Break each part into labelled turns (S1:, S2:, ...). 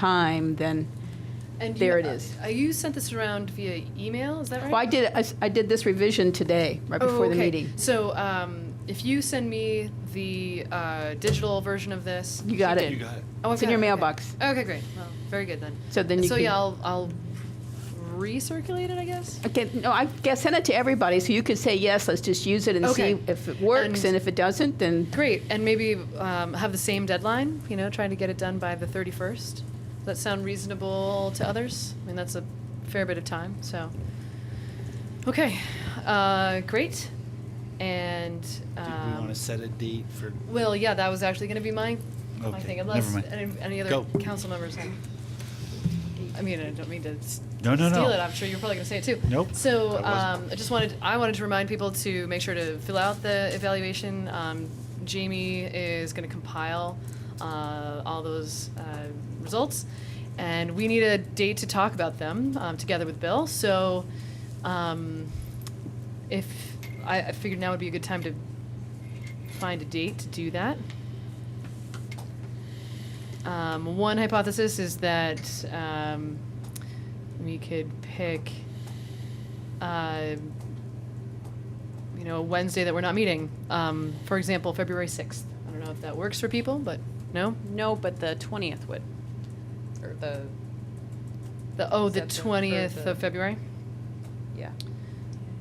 S1: time, then,
S2: And you-
S1: There it is.
S2: uh, You sent this around via email, is that right? Oh,
S1: well, I did, I s- I did this revision today, right before the
S2: okay.
S1: meeting.
S2: So um, if you send me the uh, digital version of this,
S1: You got
S3: You
S1: it.
S3: got it.
S2: Oh, I've
S1: It's in your
S2: got it, okay.
S1: mailbox.
S2: Okay, great. Well, very good then.
S1: So then you
S2: So
S1: can-
S2: yeah, I'll, I'll recirculate it, I guess.
S1: Okay, no, I guess send it to everybody, so you could say, yes, let's just use it and see
S2: Okay.
S1: if it works,
S2: And-
S1: and if it doesn't, then,
S2: Great, and maybe um, have the same deadline. You know, trying to get it done by the thirty-first. Does that sound reasonable to others? I mean, that's a fair bit of time. So, okay, uh, great, and.
S3: Did
S2: Um,
S3: we want to set a date for?
S2: Well, yeah, that was actually going to be my, my
S3: Okay,
S2: thing,
S3: never
S2: unless
S3: mind.
S2: any, any other
S3: Go.
S2: council members. have- I mean, I don't mean to s-
S3: No, no,
S2: steal
S3: no.
S2: it. I'm sure you're probably going to say it too.
S3: Nope,
S2: So
S3: I wasn't.
S2: um, I just wanted, I wanted to remind people to make sure to fill out the evaluation. Um, Jamie is going to compile uh, all those uh, results, and we need a date to talk about them um, together with Bill. So. Um, if I, I figured now would be a good time to find a date to do that. Um, one hypothesis is that um, we could pick, uh, you know, a Wednesday that we're not meeting. Um, for example, February sixth. I don't know if that works for people, but no.
S4: No, but the twentieth would, or the,
S2: The oh, the
S4: Except for
S2: twentieth
S4: the-
S2: of February.
S4: yeah.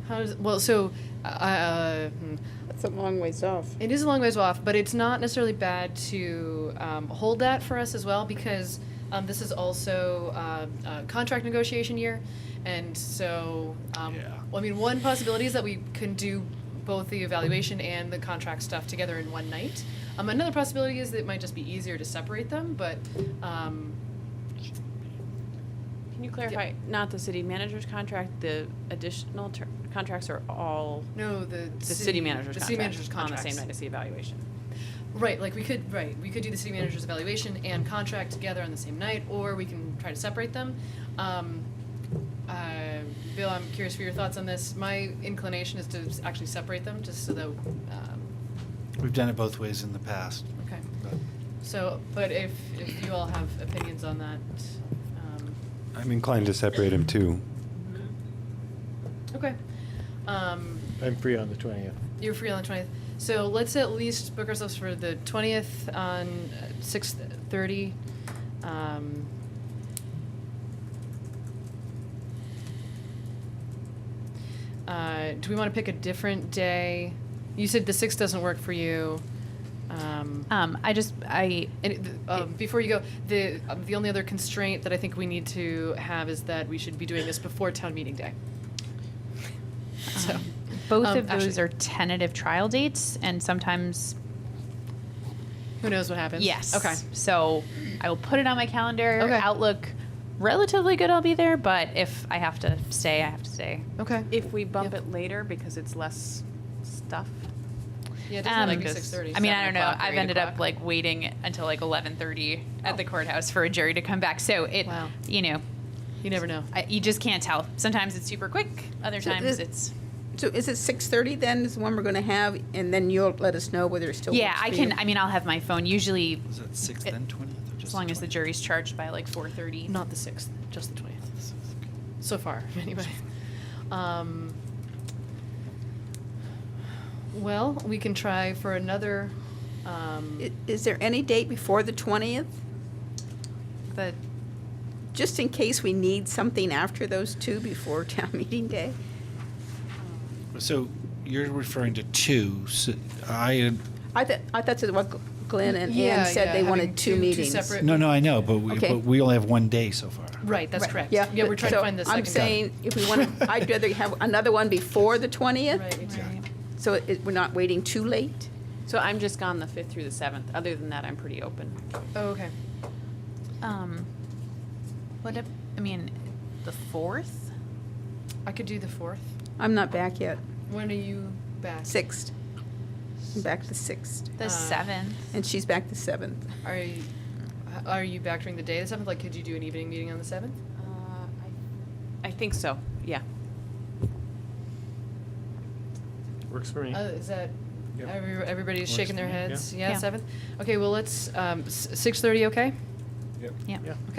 S2: How does well? So, uh, hmm.
S5: That's a long ways off.
S2: It is a long ways off, but it's not necessarily bad to um, hold that for us as well because um, this is also uh, a contract negotiation year, and so um,
S3: Yeah.
S2: well, I mean, one possibility is that we can do both the evaluation and the contract stuff together in one night. Um, another possibility is that it might just be easier to separate them, but um,
S4: Can you clarify, not the city manager's contract, the additional ter- contracts are all
S2: no, the
S4: the city manager's
S2: the
S4: contract?
S2: city manager's
S4: On the
S2: contracts
S4: same night as the evaluation.
S2: Right, like we could, right, we could do the city manager's evaluation and contract together on the same night, or we can try to separate them. Um, uh, Bill, I'm curious for your thoughts on this. My inclination is to s- actually separate them, just so that, um,
S3: We've done it both ways in the past.
S2: okay.
S3: but
S2: So, but if, if you all have opinions on that, um,
S6: I'm inclined to separate them too.
S2: okay. Um,
S7: I'm free on the 20th.
S2: You're free on the twentieth. So let's at least book ourselves for the twentieth on six thirty. Um, uh, do we want to pick a different day? You said the sixth doesn't work for you. Um,
S8: Uh,
S4: Um, I just, I,
S2: and it- the- um, before you go, the um, the only other constraint that I think we need to have is that we should be doing this before town meeting day. So.
S8: Both
S2: Um,
S8: of those
S2: actually-
S8: are tentative trial dates, and sometimes
S2: Who knows what happens?
S8: yes.
S2: Okay.
S8: So I will put it on my calendar.
S2: Okay.
S8: Outlook, relatively good. I'll be there, but if I have to stay, I have to stay.
S2: Okay.
S4: if we bump
S2: Yep.
S4: it later because it's less stuff.
S2: Yeah, it doesn't have to
S8: Um,
S2: be six thirty.
S8: I mean, I don't know.
S4: 7:00 or
S8: I've
S4: 8
S8: ended up
S4: o'clock.
S8: like waiting until like 11:30 at the courthouse for a jury to come back. So it,
S2: Oh. Wow.
S8: you know,
S2: You never know.
S8: I, you just can't tell. Sometimes it's super quick. Other
S1: So
S8: times
S1: this-
S8: it's
S1: so is it 6:30 then, is the one we're going to have, and then you'll let us know whether it still works
S8: yeah. I
S1: for
S8: can.
S1: you?
S8: I mean, I'll have my phone usually
S3: Was that sixth
S8: It-
S3: and twentieth or just?
S8: as long as the
S3: 20th?
S8: jury's charged by like 4:30.
S2: Not the sixth, just the twentieth. So far, anyway. Um, well, we can try for another. Um,
S1: I- Is there any date before the 20th,
S2: the
S1: just in case we need something after those two before town meeting day?
S3: So you're referring to two. So I had-
S1: I thought, I thought that's what Glenn and
S2: Yeah,
S1: Ann said
S2: yeah,
S1: they
S2: having
S1: wanted
S2: two-
S1: two
S2: two
S1: meetings.
S2: separate-
S3: no, no, I know, but we,
S1: Okay.
S3: but we only have one day so far.
S2: right. That's
S1: Right,
S2: correct.
S1: Yeah.
S2: Yeah, we're
S1: but-
S2: trying to
S1: so
S2: find the 2nd
S1: I'm saying, if we want, to, I'd rather have another one before the 20th.
S2: Right.
S3: Yeah.
S1: So it, we're not waiting too late?
S4: So I'm just gone the fifth through the seventh. Other than that, I'm pretty open.
S2: Oh, okay.
S8: Um, what if, I mean, the fourth?
S2: I could do the fourth.
S1: I'm not back yet.
S2: When are you back?
S1: Sixth. I'm back the sixth.
S8: The
S2: Uh,
S8: seventh?
S1: And she's back the seventh.
S2: Are you, are you back during the day the seventh? Like, could you do an evening meeting on the seventh?
S4: Uh, I, I think so. Yeah.
S7: Works for me.
S2: Uh, is that
S7: Yep.
S2: every, everybody's
S7: Works
S2: shaking
S7: for
S2: their
S7: me, yeah.
S2: heads? Yeah,
S8: Yeah.
S2: seventh. Okay, well let's um, six thirty. Okay.
S9: Yep.
S10: Yeah.
S9: Yeah.
S7: Okay.